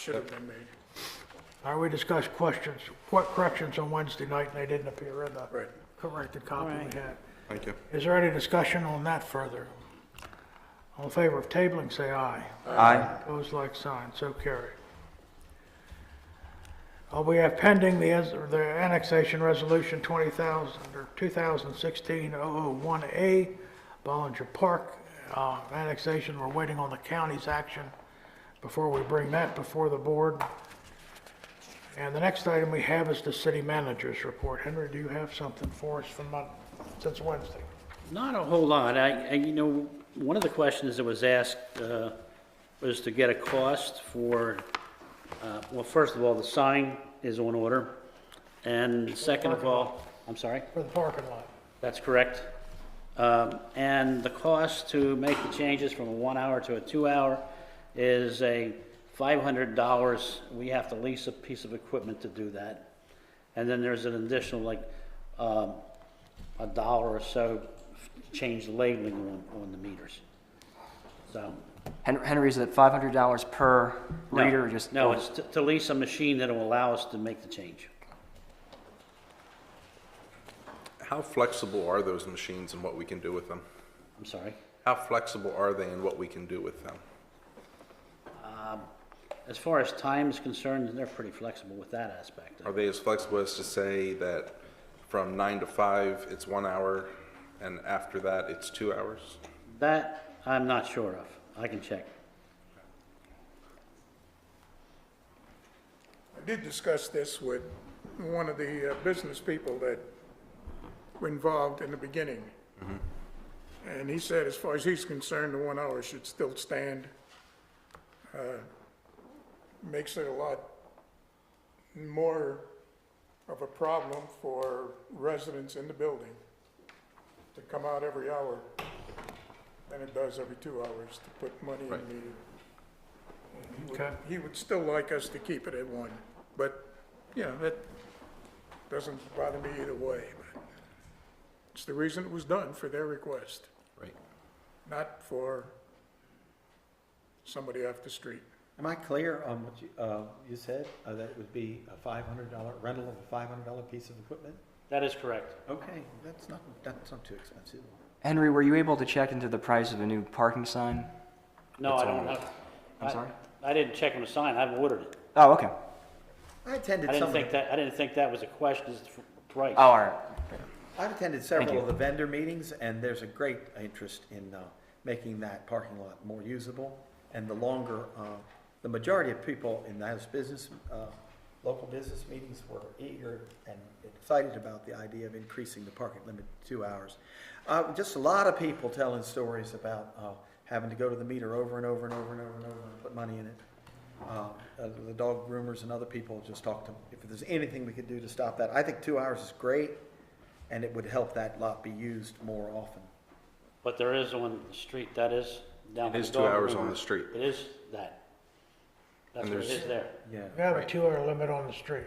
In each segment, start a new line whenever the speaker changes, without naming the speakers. should have been made.
Uh, we discussed questions, what corrections on Wednesday night, and they didn't appear in the
Right.
corrected copy
Right.
we had.
Thank you.
Is there any discussion on that further? All in favor of tabling, say aye.
Aye.
Opposed, like sign, so carried. Uh, We have pending the ans- or the annexation resolution 20,000, or 2016-001A, Bollinger Park uh, annexation. We're waiting on the county's action before we bring that before the board. And the next item we have is the city manager's report. Henry, do you have something for us from, Mon- since Wednesday?
Not a whole lot. I, I- you know, one of the questions that was asked uh, was to get a cost for, uh, well, first of all, the sign is on order, and second of all, I'm sorry,
For the parking lot?
that's correct. Um, And the cost to make the changes from a one-hour to a two-hour is a $500. We have to lease a piece of equipment to do that. And then there's an additional, like, um, a dollar or so to change the labeling on, on the meters. So.
Hen- Henry, is it five hundred dollars per
no,
reader or just?
No, it's to- to lease a machine that'll allow us to make the change.
How flexible are those machines and what we can do with them?
I'm sorry.
How flexible are they and what we can do with them?
As far as time is concerned, they're pretty flexible with that aspect of it.
Are they as flexible as to say that from nine to five, it's one hour, and after that, it's two hours?
That I'm not sure of. I can check.
I did discuss this with one of the uh, business people that were involved in the beginning. And he said, as far as he's concerned, the one hour should still stand. Uh, Makes it a lot more of a problem for residents in the building to come out every hour than it does every two hours to put money in the meter. would-
Okay.
He would still like us to keep it at one, but, you know, that doesn't bother me either way. but It's the reason it was done, for their request,
Right.
not for somebody off the street.
Am I clear on what you, uh, you said, uh, that it would be a five hundred dollar rental of a five hundred dollar piece of equipment?
That is correct.
Okay, that's not, that's not too expensive.
Henry, were you able to check into the price of a new parking sign?
No, I don't have.
I'm
I-
sorry?
I didn't check on the sign. I've ordered it.
Oh, okay.
I attended
I didn't
some of
think
the,
that, I didn't think that was a question, it's the price.
Oh, all right.
I've attended several
you.
of the vendor meetings, and there's a great interest in, uh, making that parking lot more usable. And the longer, uh, the majority of people in those business, uh, local business meetings were eager and excited about the idea of increasing the parking limit to two hours. Uh, just a lot of people telling stories about, uh, having to go to the meter over and over and over and over and over and put money in it. Uh, uh, The dog groomers and other people just talked to, if there's anything we could do to stop that. I think two hours is great, and it would help that lot be used more often.
But there is on the street, that is down.
It
by
is
the
two
dog
hours on
groomer.
the street.
It is that. That's
And
what it
there's-
is there.
Yeah.
We have a two-hour limit on the street.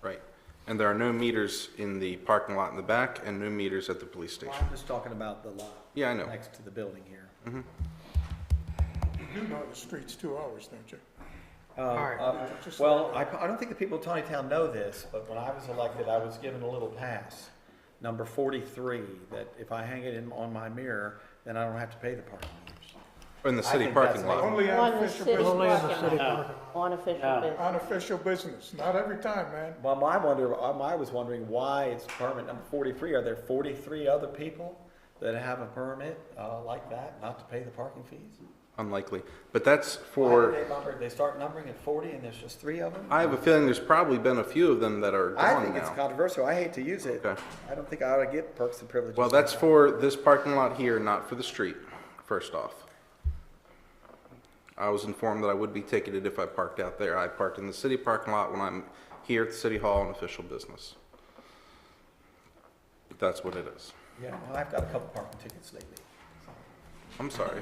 Right. And there are no meters in the parking lot in the back and no meters at the police station.
I'm just talking about the lot.
Yeah, I know. Mm-hmm.
Next to the building here.
You know the street's two hours, don't you?
Um,
right.
uh, Well, I, I don't think the people of Tonytown know this, but when I was elected, I was given a little pass, number forty-three, that if I hang it in, on my mirror, then I don't have to pay the parking meters.
In the
I
city
think that's
parking lot.
Only
amazing.
On the
unofficial,
city
business.
Only in the city
parking lot.
parking lot.
On official
No.
business.
unofficial business, not every time, man.
Well, my wonder, um, I was wondering why it's permit number forty-three. Are there forty-three other people that have a permit, uh, like that, not to pay the parking fees?
Unlikely. But that's
Why do
for,
they number, they start numbering at forty and there's just three of them?
I have a feeling there's probably been a few of them that are
I
gone
think it's
now.
controversial. I hate to use it.
Okay.
I don't think I ought to get perks and privileges.
Well, that's for this parking lot here, not for the street, first off. I was informed that I would be ticketed if I parked out there. I parked in the city parking lot when I'm here at the city hall on official business. But that's what it is.
Yeah, well, I've got a couple parking tickets lately.
I'm sorry.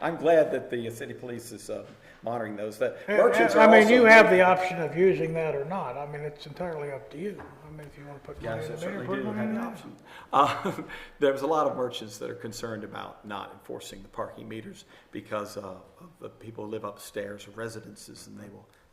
I'm glad that the city police is uh, monitoring those. The merchants are
Uh, I mean, you
also-
have the option of using that or not. I mean, it's entirely up to you. I mean, if you want to put money
Yes,
in
I
the meter,
certainly
put
do
money
have
in
an
the
option. Uh, There's a lot of merchants that are concerned about not enforcing the parking meters because uh, of the people who live upstairs, residences, and they will